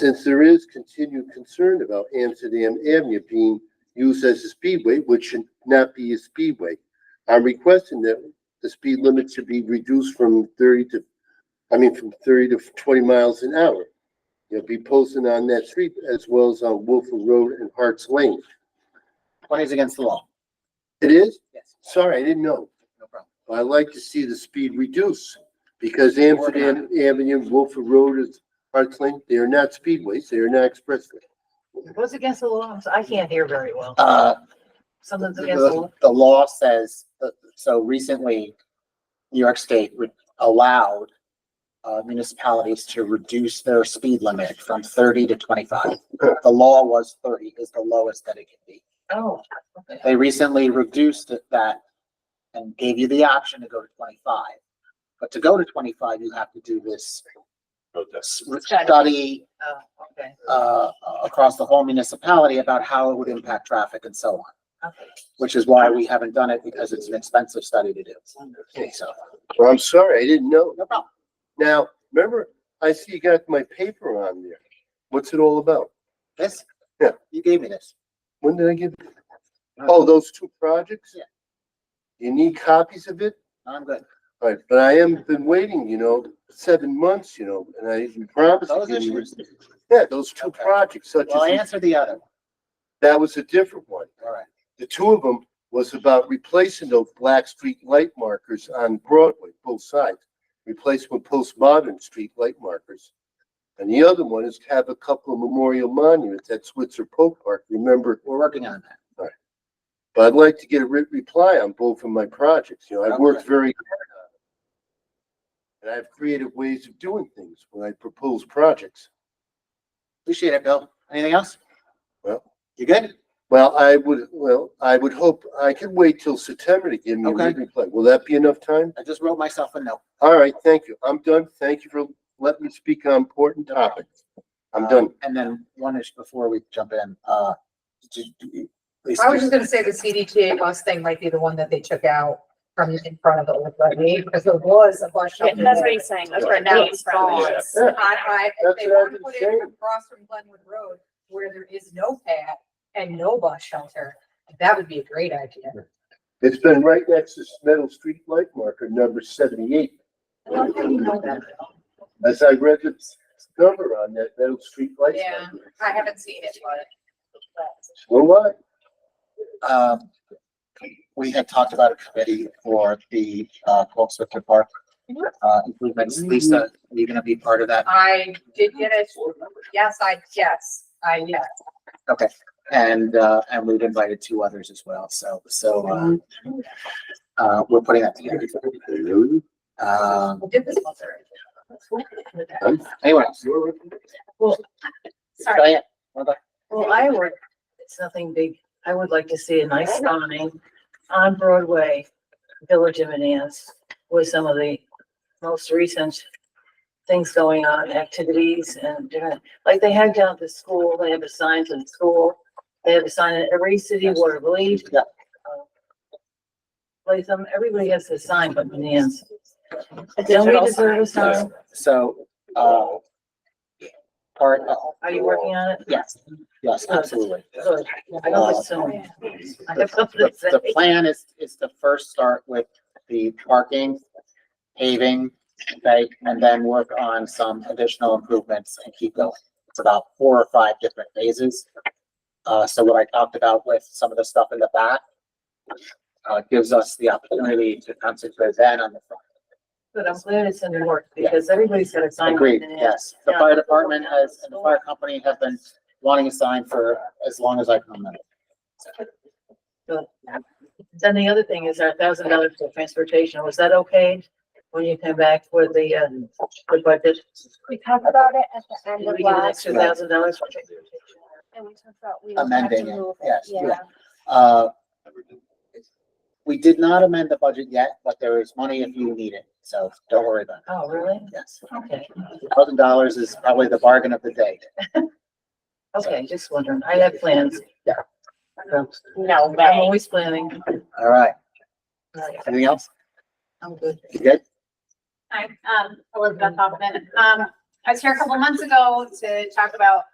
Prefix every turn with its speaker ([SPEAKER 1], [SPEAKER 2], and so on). [SPEAKER 1] Since there is continued concern about Amsterdam Avenue being used as a speedway, which should not be a speedway, I'm requesting that the speed limit should be reduced from thirty to, I mean, from thirty to twenty miles an hour. You'll be posting on that street as well as on Wolford Road and Hart's Lane.
[SPEAKER 2] Twenty is against the law.
[SPEAKER 1] It is?
[SPEAKER 2] Yes,
[SPEAKER 1] Sorry, I didn't know.
[SPEAKER 2] no problem.
[SPEAKER 1] I like to see the speed reduce because
[SPEAKER 2] We're working on
[SPEAKER 1] Amsterdam Avenue, Wolford Road is Hart's Lane. They are not speedways. They are not expressways.
[SPEAKER 3] What's against the law? I can't hear very well.
[SPEAKER 2] Uh,
[SPEAKER 3] Something's against the
[SPEAKER 2] the,
[SPEAKER 3] law.
[SPEAKER 2] the law says, that- so recently, New York State would allowed uh, municipalities to reduce their speed limit from thirty to twenty-five. The law was thirty is the lowest that it can be.
[SPEAKER 3] Oh, okay.
[SPEAKER 2] They recently reduced it that and gave you the option to go to twenty-five. But to go to twenty-five, you have to do this s- study
[SPEAKER 3] Oh, okay.
[SPEAKER 2] uh, across the whole municipality about how it would impact traffic and so on.
[SPEAKER 3] Okay.
[SPEAKER 2] which is why we haven't done it because it's an expensive study to do. So,
[SPEAKER 1] Well, I'm sorry, I didn't know.
[SPEAKER 2] no problem.
[SPEAKER 1] Now, remember, I see you got my paper on there. What's it all about?
[SPEAKER 2] This?
[SPEAKER 1] Yeah.
[SPEAKER 2] You gave me this.
[SPEAKER 1] When did I get? Oh, those two projects?
[SPEAKER 2] Yeah.
[SPEAKER 1] You need copies of it?
[SPEAKER 2] I'm good.
[SPEAKER 1] All right, but I am been waiting, you know, seven months, you know, and I promised.
[SPEAKER 2] Those
[SPEAKER 1] you-
[SPEAKER 2] issues.
[SPEAKER 1] Yeah, those two
[SPEAKER 2] Okay.
[SPEAKER 1] projects such
[SPEAKER 2] Well, I
[SPEAKER 1] as,
[SPEAKER 2] answered the other. one.
[SPEAKER 1] that was a different one.
[SPEAKER 2] All right.
[SPEAKER 1] The two of them was about replacing those black street light markers on Broadway, both sides. Replace with postmodern street light markers. And the other one is to have a couple of memorial monuments at Switzer Pope Park, remember?
[SPEAKER 2] We're working on that.
[SPEAKER 1] But I'd like to get a written reply on both of my projects, you know, I've worked
[SPEAKER 2] Okay.
[SPEAKER 1] very hard on it. And I have creative ways of doing things when I propose projects.
[SPEAKER 2] Appreciate it, Bill. Anything else?
[SPEAKER 1] Well.
[SPEAKER 2] You good?
[SPEAKER 1] Well, I would, well, I would hope, I could wait till September to give me a
[SPEAKER 2] Okay.
[SPEAKER 1] written reply. Will that be enough time?
[SPEAKER 2] I just wrote myself a note.
[SPEAKER 1] All right, thank you. I'm done. Thank you for letting me speak on important topics. I'm
[SPEAKER 2] Uh,
[SPEAKER 1] done.
[SPEAKER 2] And then one is before we jump in, uh. do- do you- please-
[SPEAKER 3] I was just gonna say the CDTA bus thing might be the one that they took out from in front of the old levy, because there was a bunch of.
[SPEAKER 4] Yeah, that's what he's saying, that's right now it's gone.
[SPEAKER 1] Yeah.
[SPEAKER 3] I, I, if
[SPEAKER 1] That's
[SPEAKER 3] they
[SPEAKER 1] what I
[SPEAKER 3] want to
[SPEAKER 1] was
[SPEAKER 3] put
[SPEAKER 1] saying.
[SPEAKER 3] it across from Glenwood Road where there is no pad and no bus shelter, that would be a great idea.
[SPEAKER 1] It's been right next to metal street light marker number seventy-eight.
[SPEAKER 3] I don't think you know that.
[SPEAKER 1] As I read the number on that metal street light.
[SPEAKER 3] Yeah.
[SPEAKER 1] marker.
[SPEAKER 3] I haven't seen it, but.
[SPEAKER 1] Well, what?
[SPEAKER 2] Um, we had talked about a committee for the, uh, Colts Victor Park. Uh, improvements. Lisa, are you gonna be part of that?
[SPEAKER 3] I did get it. Yes, I, yes, I, yes.
[SPEAKER 2] And, uh, and we've invited two others as well, so, so, uh, uh, we're putting that together. Um,
[SPEAKER 3] I did this once already.
[SPEAKER 2] anyway,
[SPEAKER 4] Sorry,
[SPEAKER 2] Diane, wanna go?
[SPEAKER 5] Well, I would, it's nothing big. I would like to see a nice sign on Broadway, Village of Manans, with some of the most recent things going on, activities and different, like they had down at the school, they have a sign to the school. They have a sign at every city, Water Village.
[SPEAKER 2] Yeah.
[SPEAKER 5] Like some, everybody has a sign but Manans. Don't we
[SPEAKER 4] digital
[SPEAKER 5] deserve a
[SPEAKER 4] sign.
[SPEAKER 5] sign?
[SPEAKER 2] so, uh, part, uh,
[SPEAKER 5] Are you working on it?
[SPEAKER 2] yes, yes, absolutely.
[SPEAKER 5] Good. I don't think so. I have something
[SPEAKER 2] The,
[SPEAKER 5] to say.
[SPEAKER 2] Oh. the plan is, is to first start with the parking, paving, okay, and then work on some additional improvements and keep going. It's about four or five different phases. Uh, so what I talked about with some of the stuff in the back uh, gives us the opportunity to concentrate then on the front.
[SPEAKER 5] But I'm glad it's in the work because everybody's got a sign.
[SPEAKER 2] Agreed,
[SPEAKER 5] in it.
[SPEAKER 2] yes. The fire department has, and the fire company have been wanting a sign for as long as I can remember.
[SPEAKER 5] Then the other thing is our thousand dollars for transportation. Was that okay? When you come back for the, um, for budget?
[SPEAKER 4] we talked about it at the end
[SPEAKER 5] Did
[SPEAKER 4] of
[SPEAKER 5] we give an
[SPEAKER 4] last,
[SPEAKER 5] extra thousand dollars for transportation?
[SPEAKER 4] and we talked about we would have to
[SPEAKER 2] Amending it,
[SPEAKER 4] move it,
[SPEAKER 2] yes,
[SPEAKER 4] yeah.
[SPEAKER 2] Uh, We did not amend the budget yet, but there is money if you need it, so don't worry about
[SPEAKER 5] Oh, really?
[SPEAKER 2] it, yes.
[SPEAKER 5] Okay,
[SPEAKER 2] Thousand dollars is probably the bargain of the day.
[SPEAKER 5] okay, just wondering. I have plans.
[SPEAKER 2] Yeah.
[SPEAKER 5] So,
[SPEAKER 4] No
[SPEAKER 5] I'm
[SPEAKER 4] way.
[SPEAKER 5] always planning.
[SPEAKER 2] All right,
[SPEAKER 5] All right,
[SPEAKER 2] anything else?
[SPEAKER 5] I'm good.
[SPEAKER 2] You good?
[SPEAKER 4] Hi, um, Elizabeth Hoffman, um, I was here a couple months ago to talk about